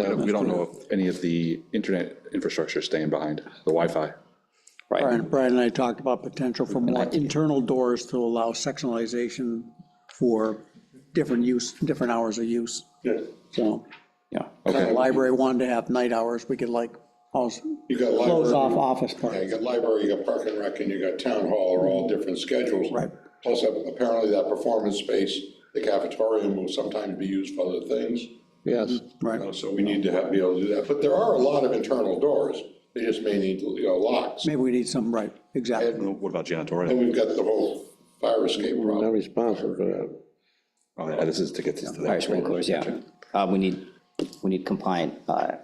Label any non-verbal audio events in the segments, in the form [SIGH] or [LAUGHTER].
Uh, We don't know if any of the internet infrastructure is staying behind, the Wi-Fi. Right, Brian, Brian and I talked about potential for more internal doors to allow sectionalization for different use, different hours of use. Good. So, yeah. if the Okay. library wanted to have night hours, we could like, also You got close off library, office yeah, parts. you got library, you got park and rec, and you got town hall are all different schedules. Right. Plus, uh, apparently that performance space, the cafeteria will sometimes be used for other things. Yes. Mm-hmm. Right, Uh, So we need to have, be able to do that. But there are a lot of internal doors. They just may need, you know, locks. maybe we need some, right, exactly. What about And janitorial? we've got the whole fire escape Not problem. responsible for that. Oh, yeah, This is to get to Fire that. sprinklers, yeah. Uh, We need, we need compliant uh,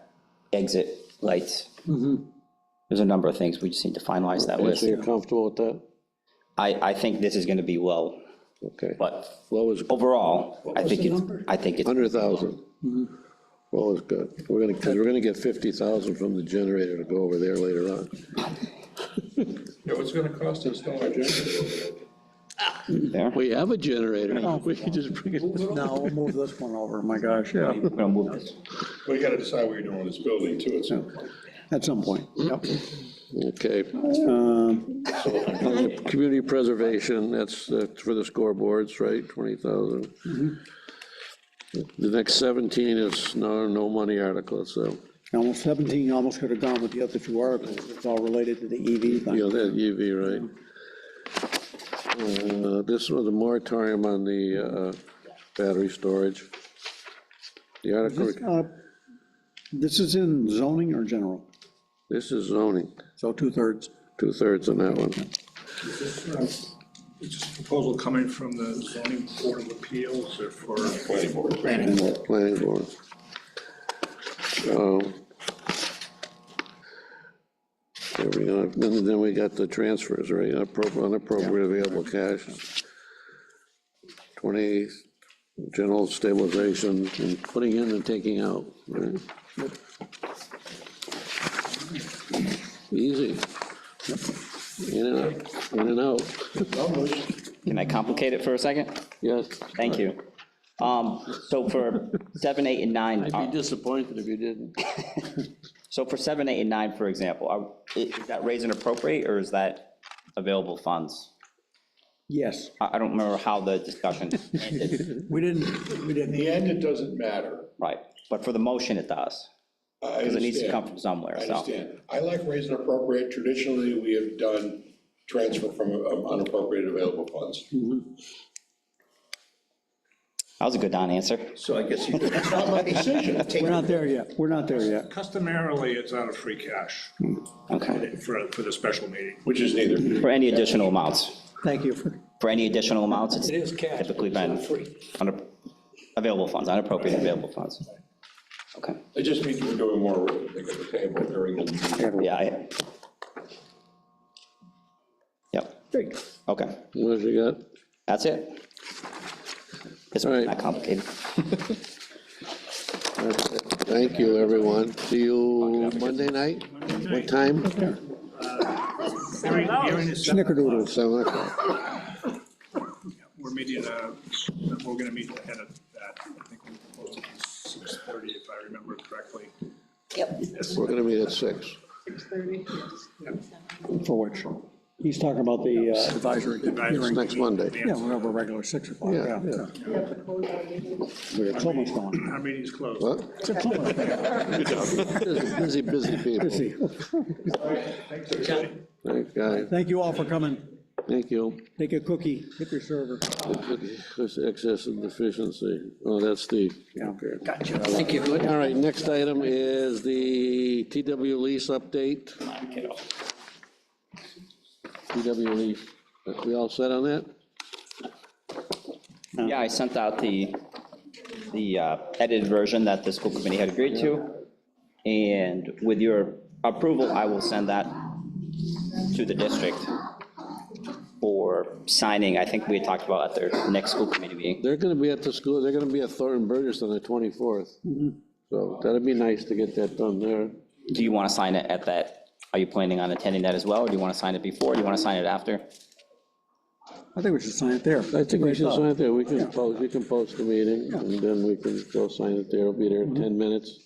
exit lights. There's a number of things, we just need to finalize that So list. you're comfortable with that? I, I think this is going to be low, Okay. but Low is, overall, I think it's, I think it's, 100,000. Low is good. We're gonna, 'cause we're gonna get 50,000 from the generator to go over there later on. Yeah, what's going to cost to install our generator? there. We have a generator. We can just bring it. Now, we'll move this one over, my gosh, yeah, We're gonna move this. Well, you got to decide what you're doing with this building too. It's, at some point. Yep. Okay. Um, Community preservation, that's uh, for the scoreboards, right, 20,000. The next 17 is no, no money article, so, Almost 17, almost could have gone with the other two articles, it's all related to the EV you thing. know, that UV, right? Uh, This was a moratorium on the uh, battery storage. The article, This, uh, This is in zoning or general, this is zoning, so two-thirds. two-thirds on that one. Is this proposal coming from the zoning board of appeals or for? Planning board. planning board. So, There we go, then, then we got the transfers, right, Appro- unappropriate available cash. Twenty, general stabilization, and putting in and taking out, right? Easy. In and out, in and out, Can I complicate it for a second? yes. Thank you. Um, So for seven, eight, and nine. I'd uh, be disappointed if you didn't. So for seven, eight, and nine, for example, are- i- is that raise and appropriate, or is that available funds? Yes. I I don't remember how the discussion ended, [LAUGHS] We didn't, we in didn't, the end, it doesn't matter. right, but for the motion, it does, because it needs to come from somewhere, I so. understand. I like raise and appropriate. Traditionally, we have done transfer from um, unappropriated available funds. That was a good non-answer. So I guess you. It's not my [LAUGHS] decision. we're not there yet, we're not there yet. Customarily, it's out of free cash Okay. for, for the special meeting. Which is neither. For any additional amounts, Thank you for, for any additional amounts, it's It is cash. typically but been it's not free. under- available funds, unappropriated available funds. Okay, It just means we're doing more, I think, at the table during the meeting. yeah, I. Yep, okay, What else you got? that's it. It's All right. not complicated. Thank you, everyone. See you Monday night? What time? Hearing, hearing is set. snickerdoodles. Seven o'clock. We're meeting, uh, we're gonna meet ahead of that. I think we proposed it six thirty, if I remember correctly. Yep. Yes. We're gonna meet at six. 6:30, yes. For which? He's talking about the uh, advisory hearing. Next Monday. Yeah, we're over regular six o'clock, Yeah, yeah. yeah. We have to close our meeting. We're almost on. Our meeting's closed. What? Busy, busy people. Busy. Thank God. Thank you all for coming. Thank you. Take a cookie, hit your server. This excess and deficiency. Oh, that's the. Gotcha. Thank you. All right, next item is the TW lease update. TW lease. We all set on that? Yeah, I sent out the, the uh, edited version that the school committee had agreed to. And with your approval, I will send that to the district for signing. I think we had talked about at their next school committee meeting. They're gonna be at the school, they're gonna be at Thornton Burgess on the 24th. So that'd be nice to get that done there. Do you want to sign it at that? Are you planning on attending that as well? Or do you want to sign it before? Do you want to sign it after? I think we should sign it there. I think we should sign it there, we can post, we can post the meeting, and then we can go sign it there, it'll be there in 10 minutes.